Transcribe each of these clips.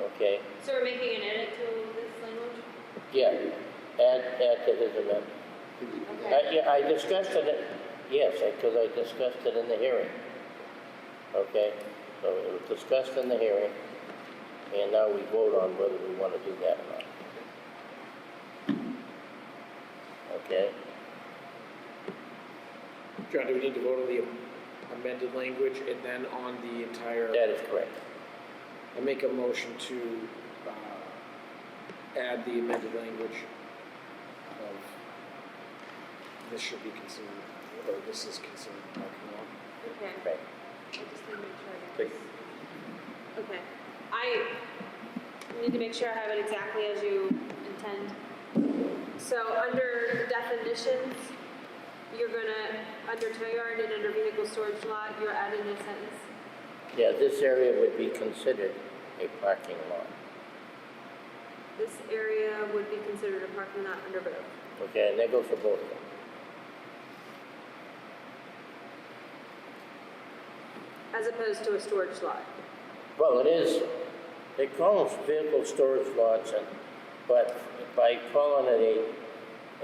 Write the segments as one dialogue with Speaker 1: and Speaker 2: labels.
Speaker 1: okay?
Speaker 2: So we're making an edit to this language?
Speaker 1: Yeah, add, add to his amendment.
Speaker 2: Okay.
Speaker 1: I- Yeah, I discussed it, yes, because I discussed it in the hearing. Okay, so it was discussed in the hearing, and now we vote on whether we want to do that or not. Okay,
Speaker 3: John, do we need to vote on the amended language and then on the entire?
Speaker 1: that is correct.
Speaker 3: I make a motion to uh, add the amended language of, this should be considered, or this is considered parking lot.
Speaker 2: Okay.
Speaker 1: Right.
Speaker 2: I just need to make sure I got this. Okay. I need to make sure I have it exactly as you intend. So under definitions, you're gonna, under tow yard and under vehicle storage lot, you're adding a sentence.
Speaker 1: Yeah, this area would be considered a parking lot,
Speaker 2: This area would be considered a parking lot under both.
Speaker 1: okay, and that goes for both of them.
Speaker 2: As opposed to a storage lot.
Speaker 1: Well, it is, they call them vehicle storage lots, and, but by calling it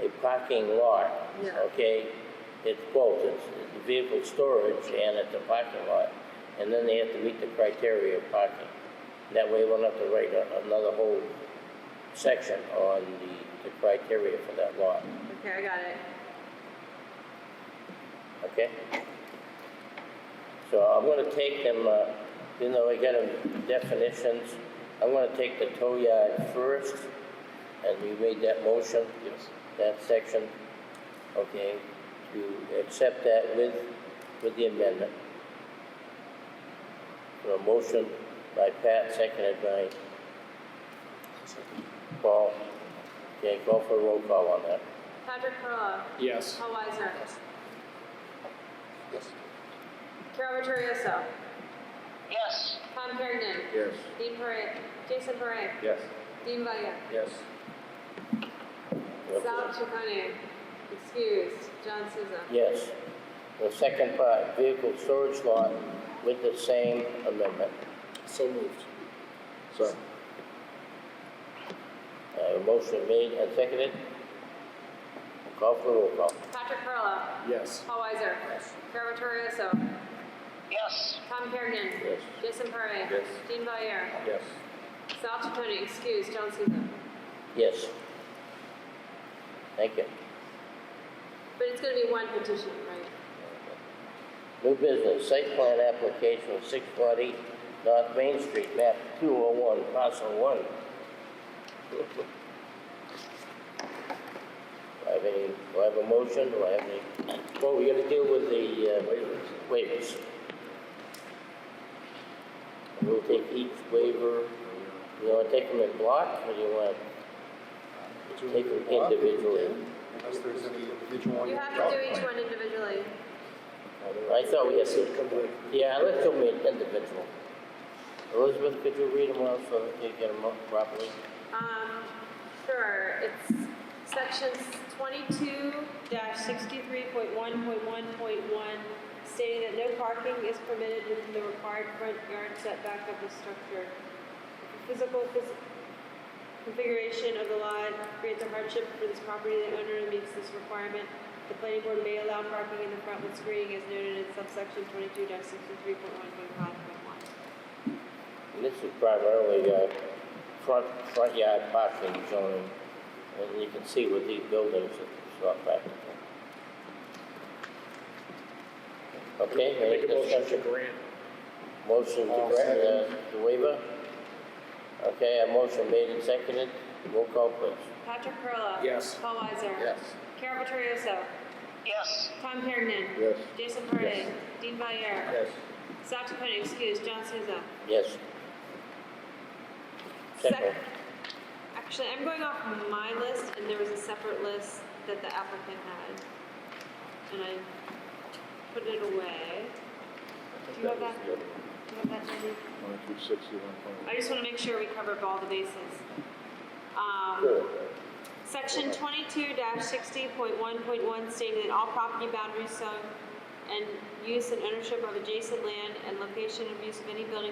Speaker 1: a, a parking lot,
Speaker 2: Yeah.
Speaker 1: okay? It's both, it's it's vehicle storage and it's a parking lot, and then they have to meet the criteria of parking. That way, we'll have to write a- another whole section on the, the criteria for that lot,
Speaker 2: Okay, I got it.
Speaker 1: okay? So I'm gonna take them, uh, even though I got them definitions, I'm gonna take the tow yard first, and you made that motion? Yes. That section, okay, to accept that with, with the amendment. So a motion by Pat, seconded by Paul. Okay, call for a roll call on that.
Speaker 2: Patrick Perla.
Speaker 3: Yes.
Speaker 2: Paul Weiser.
Speaker 1: Yes.
Speaker 2: Carol Vittorioso.
Speaker 4: yes,
Speaker 2: Tom Kergnen.
Speaker 5: Yes.
Speaker 2: Dean Parra, Jason Parra,
Speaker 5: Yes.
Speaker 2: Dean Valier.
Speaker 5: Yes.
Speaker 2: Sal Chaconi, excused, John Souza.
Speaker 1: Yes. The second part, vehicle storage lot with the same amendment.
Speaker 3: So moved.
Speaker 5: So,
Speaker 1: Uh, motion made and seconded. Call for roll call.
Speaker 2: Patrick Perla,
Speaker 3: Yes.
Speaker 2: Paul Weiser. Carol Vittorioso,
Speaker 4: yes,
Speaker 2: Tom Kergnen.
Speaker 1: Yes.
Speaker 2: Jason Parra.
Speaker 5: Yes.
Speaker 2: Dean Valier.
Speaker 5: yes.
Speaker 2: Sal Chaconi, excused, John Souza.
Speaker 1: Yes. Thank you.
Speaker 2: But it's gonna be one petition, right?
Speaker 1: New business, site plan application six forty North Main Street, map two oh one, parcel one. Do I have any, do I have a motion, do I have any, well, we gotta deal with the, uh, waivers. We'll take each waiver, you wanna take them in block, or do you wanna take them individually?
Speaker 5: Unless there's any individual
Speaker 2: You have to do each one individually.
Speaker 1: I thought we had
Speaker 3: So
Speaker 1: to.
Speaker 3: come to-
Speaker 1: Yeah, let's go with individual. Elizabeth, could you read them out so that you get them up properly?
Speaker 2: Um, sure, it's sections twenty-two sixty-three point one point one point one, stating that no parking is permitted within the required front yard setback of the structure. If the Physical phys- configuration of the lot creates a hardship for this property, the owner meets this requirement. The planning board may allow parking in the front with screening as noted in subsection twenty-two sixty-three point one point five point one.
Speaker 1: And This is primarily uh, front, front yard parking zoning, and you can see with these buildings, it's not practical. Okay,
Speaker 3: I Make
Speaker 1: any
Speaker 3: a motion to
Speaker 1: discussion?
Speaker 3: grant.
Speaker 1: Motion to
Speaker 5: I'll
Speaker 1: grant uh,
Speaker 5: second.
Speaker 1: the waiver? Okay, a motion made and seconded, roll call please.
Speaker 2: Patrick Perla.
Speaker 3: Yes.
Speaker 2: Paul Weiser.
Speaker 5: Yes.
Speaker 2: Carol Vittorioso.
Speaker 4: yes,
Speaker 2: Tom Hergen.
Speaker 5: Yes.
Speaker 2: Jason Parra. Dean Valier.
Speaker 5: Yes.
Speaker 2: South Dakota, excuse, John Souza.
Speaker 1: Yes. Second.
Speaker 2: Sec- Actually, I'm going off my list, and there was a separate list that the applicant had. And I put it away. Do you have that? Do you have that, Jenny?
Speaker 5: One, two, sixty, one,
Speaker 2: I just want to make sure we covered all the bases. Um, Section twenty-two sixty point one point one stating that all property boundaries, zone, and use and ownership of adjacent land and location of use of any building